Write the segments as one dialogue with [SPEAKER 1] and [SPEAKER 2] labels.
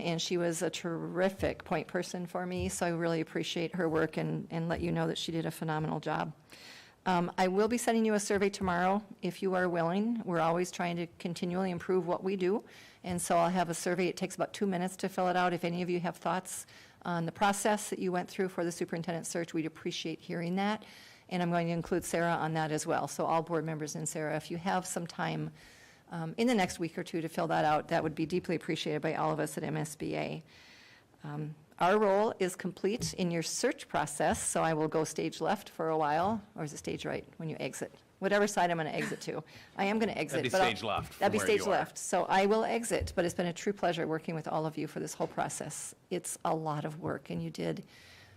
[SPEAKER 1] And she was a terrific point person for me, so I really appreciate her work and, and let you know that she did a phenomenal job. Um, I will be sending you a survey tomorrow, if you are willing. We're always trying to continually improve what we do. And so I'll have a survey, it takes about two minutes to fill it out. If any of you have thoughts on the process that you went through for the superintendent search, we'd appreciate hearing that. And I'm going to include Sarah on that as well. So all board members and Sarah, if you have some time um, in the next week or two to fill that out, that would be deeply appreciated by all of us at MSBA. Um, Our role is complete in your search process, so I will go stage left for a while, or is it stage right when you exit? Whatever side I'm going to exit to. I am going to exit.
[SPEAKER 2] That'd be
[SPEAKER 1] but I'll-
[SPEAKER 2] stage left
[SPEAKER 1] That'd be
[SPEAKER 2] from where
[SPEAKER 1] stage
[SPEAKER 2] you are.
[SPEAKER 1] left. So I will exit, but it's been a true pleasure working with all of you for this whole process. It's a lot of work, and you did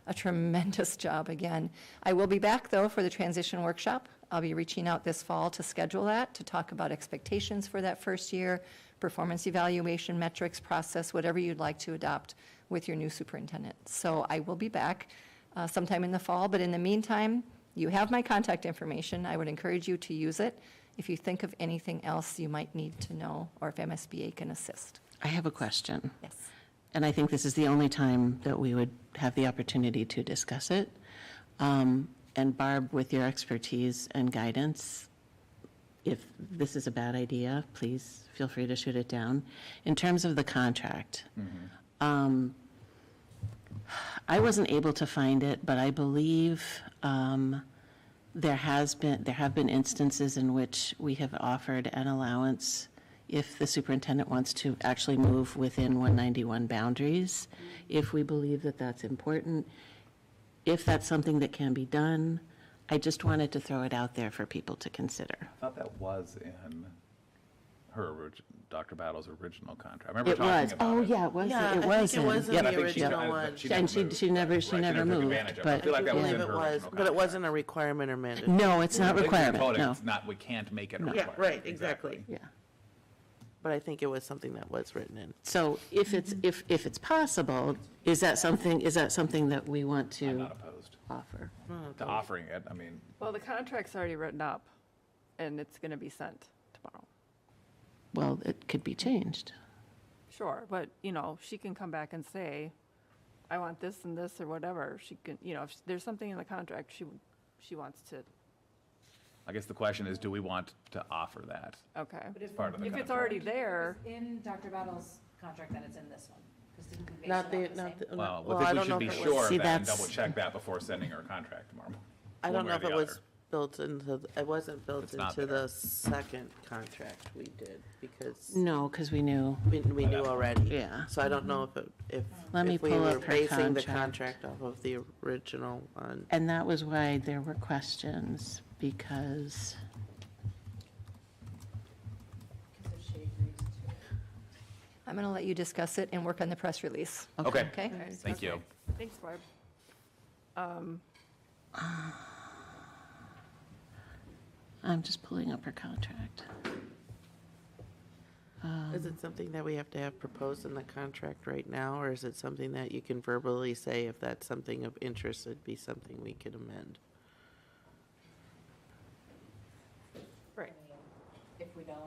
[SPEAKER 1] a tremendous job again. I will be back, though, for the transition workshop. I'll be reaching out this fall to schedule that, to talk about expectations for that first year, performance evaluation, metrics, process, whatever you'd like to adopt with your new superintendent. So I will be back uh, sometime in the fall, but in the meantime, you have my contact information. I would encourage you to use it if you think of anything else you might need to know or if MSBA can assist.
[SPEAKER 3] I have a question,
[SPEAKER 1] Yes.
[SPEAKER 3] and I think this is the only time that we would have the opportunity to discuss it. Um, And Barb, with your expertise and guidance, if this is a bad idea, please feel free to shoot it down. In terms of the contract, um, I wasn't able to find it, but I believe um, there has been, there have been instances in which we have offered an allowance if the superintendent wants to actually move within 191 boundaries, if we believe that that's important, if that's something that can be done. I just wanted to throw it out there for people to consider.
[SPEAKER 2] I thought that was in her, orig- Dr. Battle's original contract. I remember
[SPEAKER 3] It
[SPEAKER 2] talking
[SPEAKER 3] was,
[SPEAKER 2] about it.
[SPEAKER 3] oh, yeah, it was,
[SPEAKER 4] Yeah, I
[SPEAKER 3] it
[SPEAKER 4] think
[SPEAKER 3] was.
[SPEAKER 4] it
[SPEAKER 3] in-
[SPEAKER 4] was in
[SPEAKER 3] yep.
[SPEAKER 2] And I
[SPEAKER 4] the
[SPEAKER 2] think she-
[SPEAKER 4] original
[SPEAKER 2] I- I-
[SPEAKER 4] one.
[SPEAKER 2] never
[SPEAKER 3] And she-
[SPEAKER 2] moved.
[SPEAKER 3] she never- she
[SPEAKER 2] Right,
[SPEAKER 3] never
[SPEAKER 2] never took
[SPEAKER 3] moved,
[SPEAKER 2] advantage of it.
[SPEAKER 3] but-
[SPEAKER 2] I feel like that was
[SPEAKER 4] believe
[SPEAKER 2] in her
[SPEAKER 4] it was,
[SPEAKER 2] original
[SPEAKER 4] but it
[SPEAKER 2] contract.
[SPEAKER 4] wasn't a requirement or mandate.
[SPEAKER 3] No, it's not
[SPEAKER 2] They can call
[SPEAKER 3] requirement,
[SPEAKER 2] it,
[SPEAKER 3] no.
[SPEAKER 2] It's not, we can't make it a
[SPEAKER 4] Yeah,
[SPEAKER 2] requirement.
[SPEAKER 4] right, exactly.
[SPEAKER 3] Yeah.
[SPEAKER 4] But I think it was something that was written in.
[SPEAKER 3] So if it's, if, if it's possible, is that something, is that something that we want
[SPEAKER 2] I'm
[SPEAKER 3] to
[SPEAKER 2] not opposed
[SPEAKER 3] offer?
[SPEAKER 4] Oh,
[SPEAKER 2] to offering it. I mean,
[SPEAKER 5] Well, the contract's already written up, and it's going to be sent tomorrow.
[SPEAKER 3] Well, it could be changed.
[SPEAKER 5] Sure, but, you know, she can come back and say, I want this and this or whatever. She can, you know, if there's something in the contract she, she wants to,
[SPEAKER 2] I guess the question is, do we want to offer that?
[SPEAKER 5] okay.
[SPEAKER 6] But if-
[SPEAKER 2] Part of the
[SPEAKER 5] If
[SPEAKER 2] contract.
[SPEAKER 5] it's already there,
[SPEAKER 6] In Dr. Battle's contract, then it's in this one, because didn't we base it
[SPEAKER 4] Not
[SPEAKER 6] off
[SPEAKER 4] the,
[SPEAKER 6] the
[SPEAKER 4] not
[SPEAKER 6] same?
[SPEAKER 4] the.
[SPEAKER 2] Well,
[SPEAKER 4] Mm. well,
[SPEAKER 2] I
[SPEAKER 4] I
[SPEAKER 2] think we
[SPEAKER 4] don't
[SPEAKER 2] should
[SPEAKER 4] know if
[SPEAKER 2] be
[SPEAKER 4] it was-
[SPEAKER 2] sure
[SPEAKER 3] See,
[SPEAKER 2] of that and
[SPEAKER 3] that's-
[SPEAKER 2] double check that before sending her contract tomorrow.
[SPEAKER 4] I
[SPEAKER 2] one
[SPEAKER 4] don't
[SPEAKER 2] way or
[SPEAKER 4] know if
[SPEAKER 2] the
[SPEAKER 4] it was
[SPEAKER 2] other.
[SPEAKER 4] built into, it wasn't built
[SPEAKER 2] It's not
[SPEAKER 4] into
[SPEAKER 2] there.
[SPEAKER 4] the second contract we did because
[SPEAKER 3] No, because we knew,
[SPEAKER 4] we, we knew already.
[SPEAKER 3] Yeah.
[SPEAKER 4] So I don't know if, it- if.
[SPEAKER 3] Let me
[SPEAKER 4] if we
[SPEAKER 3] pull
[SPEAKER 4] were
[SPEAKER 3] up her
[SPEAKER 4] Basing the
[SPEAKER 3] contract.
[SPEAKER 4] contract off of the original one.
[SPEAKER 3] and that was why there were questions, because,
[SPEAKER 6] Because if she agrees to it.
[SPEAKER 1] I'm going to let you discuss it and work on the press release,
[SPEAKER 2] Okay,
[SPEAKER 1] okay?
[SPEAKER 5] Okay,
[SPEAKER 2] thank you.
[SPEAKER 5] thanks, Barb. Um,
[SPEAKER 3] I'm just pulling up her contract.
[SPEAKER 4] Is it something that we have to have proposed in the contract right now, or is it something that you can verbally say if that's something of interest, it'd be something we could amend?
[SPEAKER 5] Right.
[SPEAKER 6] If we don't,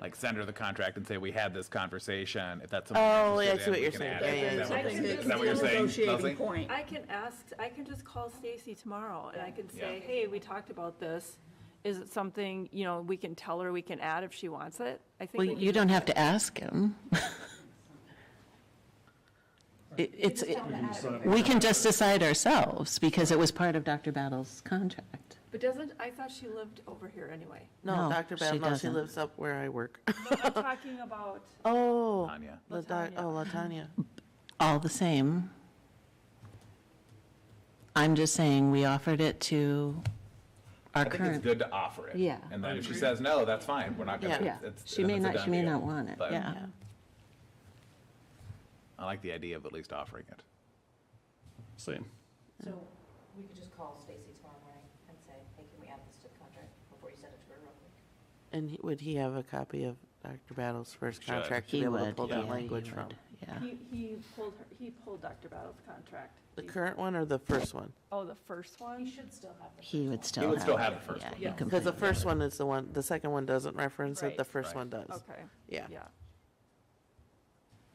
[SPEAKER 2] Like send her the contract and say, we had this conversation. If that's something.
[SPEAKER 4] Oh,
[SPEAKER 2] you're
[SPEAKER 4] yeah, I
[SPEAKER 2] interested
[SPEAKER 4] see what
[SPEAKER 2] in,
[SPEAKER 4] you're
[SPEAKER 2] we can
[SPEAKER 4] saying.
[SPEAKER 2] add
[SPEAKER 4] Yeah,
[SPEAKER 2] it.
[SPEAKER 4] yeah,
[SPEAKER 2] Is
[SPEAKER 4] yeah.
[SPEAKER 2] that what-
[SPEAKER 4] Something
[SPEAKER 2] Is that what you're saying? Leslie?
[SPEAKER 5] I can ask, I can just call Stacy tomorrow and I can say,
[SPEAKER 2] Yeah.
[SPEAKER 5] hey, we talked about this. Is it something, you know, we can tell her we can add if she wants it? I think.
[SPEAKER 3] Well,
[SPEAKER 5] we can
[SPEAKER 3] you
[SPEAKER 5] do
[SPEAKER 3] don't
[SPEAKER 5] that.
[SPEAKER 3] have to ask him. It- It's, we can just decide ourselves, because it was part of Dr. Battle's contract.
[SPEAKER 5] But doesn't, I thought she lived over here anyway.
[SPEAKER 4] No,
[SPEAKER 3] No,
[SPEAKER 4] Dr.
[SPEAKER 3] she
[SPEAKER 4] Bell, no, she
[SPEAKER 3] doesn't.
[SPEAKER 4] lives up where I work.
[SPEAKER 5] I'm talking about.
[SPEAKER 4] Oh.
[SPEAKER 2] Tanya.
[SPEAKER 4] La- doc- Oh, Latanya.
[SPEAKER 3] all the same. I'm just saying, we offered it to our
[SPEAKER 2] I think it's
[SPEAKER 3] current.
[SPEAKER 2] good to offer it.
[SPEAKER 3] Yeah.
[SPEAKER 2] And then if she says no, that's fine. We're not gonna.
[SPEAKER 4] Yeah.
[SPEAKER 2] it's- it's-
[SPEAKER 3] She
[SPEAKER 2] then
[SPEAKER 3] may
[SPEAKER 2] it's a
[SPEAKER 3] not,
[SPEAKER 2] done
[SPEAKER 3] she may
[SPEAKER 2] deal.
[SPEAKER 3] not want it,
[SPEAKER 2] But
[SPEAKER 3] yeah.
[SPEAKER 2] I like the idea of at least offering it.
[SPEAKER 7] Same.
[SPEAKER 6] so we could just call Stacy tomorrow morning and say, hey, can we add this to the contract before you send it to her real quick?
[SPEAKER 4] And he- would he have a copy of Dr. Battle's first
[SPEAKER 2] Should.
[SPEAKER 4] contract to be
[SPEAKER 3] He
[SPEAKER 4] able to
[SPEAKER 3] would,
[SPEAKER 4] pull
[SPEAKER 3] yeah,
[SPEAKER 4] that
[SPEAKER 3] he
[SPEAKER 4] language
[SPEAKER 3] would,
[SPEAKER 4] from?
[SPEAKER 3] Yeah.
[SPEAKER 5] He, he pulled her, he pulled Dr. Battle's contract.
[SPEAKER 4] The current one or the first one?
[SPEAKER 5] Oh, the first
[SPEAKER 6] You
[SPEAKER 5] one?
[SPEAKER 6] should still have the.
[SPEAKER 3] He would still have.
[SPEAKER 2] would still
[SPEAKER 3] it.
[SPEAKER 2] have the first
[SPEAKER 3] Yeah,
[SPEAKER 2] one,
[SPEAKER 3] you
[SPEAKER 5] yeah.
[SPEAKER 3] can
[SPEAKER 4] Because the
[SPEAKER 3] put-
[SPEAKER 4] first one is the one, the second one doesn't reference it,
[SPEAKER 5] Right.
[SPEAKER 4] the first
[SPEAKER 2] Right.
[SPEAKER 4] one does.
[SPEAKER 5] Okay,
[SPEAKER 4] Yeah.
[SPEAKER 5] yeah.